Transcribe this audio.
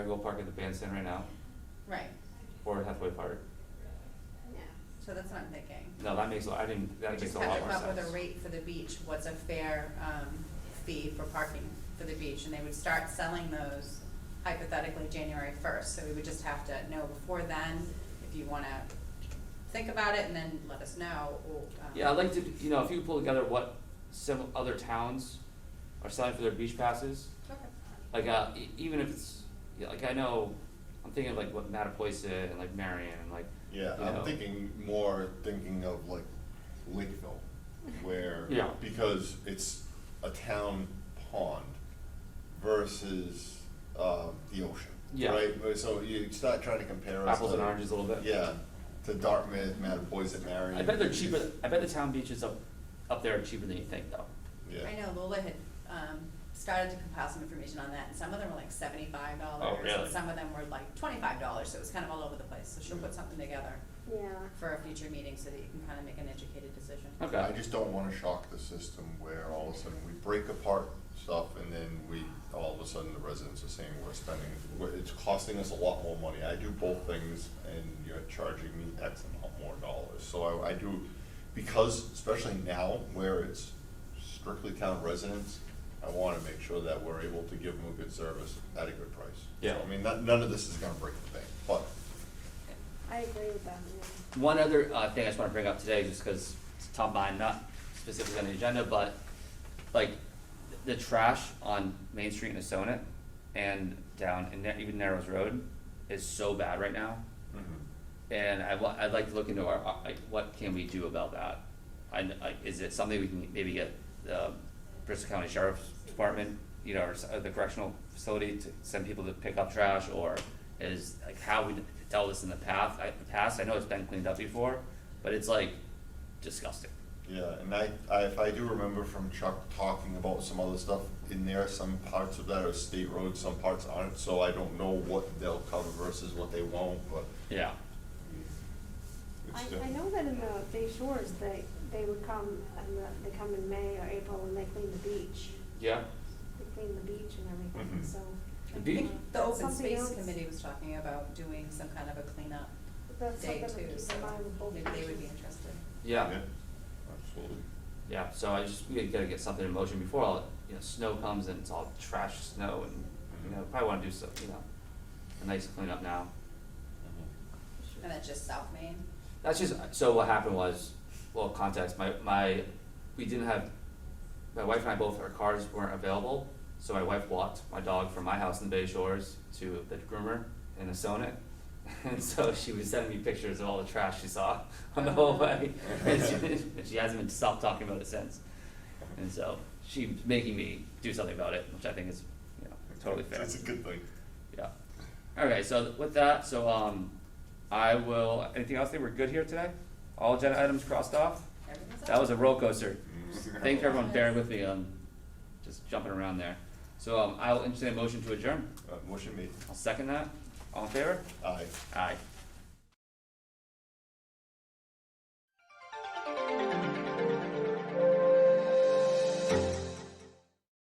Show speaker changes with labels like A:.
A: go park at the bandstand right now,
B: Right,
A: or at Hathaway Park.
B: yeah, so that's what I'm thinking.
A: No, that makes, a I didn't, that makes a lot more
B: We
A: sense.
B: just have to come up with a rate for the beach, what's a fair, um, fee for parking for the beach, and they would start selling those hypothetically January first, so we would just have to know before then, if you wanna think about it and then let us know, or, um.
A: Yeah, I'd like to, you know, if you could pull together what some other towns are selling for their beach passes,
B: Okay,
A: like, uh, e- even if it's, yeah, like, I know, I'm thinking of like what Mattapoisett and like Marion and like,
C: Yeah,
A: you know.
C: I'm thinking more thinking of like Lakeville, where
A: Yeah.
C: because it's a town pond versus uh, the ocean,
A: Yeah.
C: right? So you start trying to compare us
A: apples
C: to,
A: and oranges a little bit.
C: Yeah, to Dartmouth, Mattapoisett, Marion.
A: I bet they're cheaper, I bet the town beaches up, up there are cheaper than you think though.
C: Yeah.
B: I know Lola had, um, started to compile some information on that, and some of them were like seventy-five dollars,
A: Oh, really? Mm.
B: and some of them were like twenty-five dollars, so it was kind of all over the place, so she'll put something together
D: Yeah.
B: for a future meeting, so that you can kind of make an educated decision.
A: Okay.
C: I just don't wanna shock the system where all of a sudden we break apart stuff and then we, all of a sudden the residents are saying we're spending, we're- it's costing us a lot more money. I do both things and you're charging me X amount more dollars. So I, I do, because especially now where it's strictly town residents, I wanna make sure that we're able to give them a good service at a good price.
A: Yeah.
C: So, I mean, not, none of this is gonna break the bank, but
D: I agree with that. yeah.
A: One other uh, thing I just want to bring up today, just because it's top of mind, not specifically on the agenda, but like th- the trash on Main Street in Asona and down in Na- even Narrows Road is so bad right now. And I wa- I'd like to look into our, uh, like, what can we do about that? I, kn- like, is it something we can maybe get the Bristol County Sheriff's Department, you know, or s- uh, the correctional facility to send people to pick up trash? Or is, like, how we dealt this in the past, I, the past, I know it's been cleaned up before, but it's like disgusting.
C: Yeah, and I, I, if I do remember from Chuck talking about some other stuff in there, some parts of that are state roads, some parts aren't, so I don't know what they'll cover versus what they won't, but
A: Yeah,
C: it's
D: I, I
C: different.
D: know that in the Bay Shores, they, they would come, and the- they come in May or April and they clean the beach.
A: yeah,
D: They clean the beach and everything,
C: Mhm.
D: so.
A: The
B: I
A: beach-
B: think The
D: That's
B: open
D: something
B: space
D: else.
B: committee was talking about doing some kind of a cleanup
D: That's
B: day
D: something to
B: too,
D: keep
B: so
D: in mind with both
B: maybe they would be
D: beaches.
B: interested.
A: yeah,
C: Absolutely.
A: yeah, so I just, we gotta get something in motion before all, you know, snow comes and it's all trash snow and, you know, probably wanna do some, you know, a nice cleanup now.
B: And that's just South Main,
A: That's just, so what happened was, well, context, my, my, we didn't have, my wife and I both, our cars weren't available, so my wife walked my dog from my house in the Bay Shores to the groomer in Asona. And so she was sending me pictures of all the trash she saw on the whole way, and she, and she hasn't been stopped talking about it since. And so she's making me do something about it, which I think is, you know, totally fair.
C: It's a good thing.
A: Yeah. Okay, so with that, so um, I will, anything else? I think we're good here today? All agenda items crossed off?
B: everything's up.
A: That was a roller coaster. Thank you everyone bearing with me, um, just jumping around there. So um, I'll entertain a motion to adjourn.
C: Uh, motion made,
A: I'll second that. All in favor?
C: aye.
A: Aye.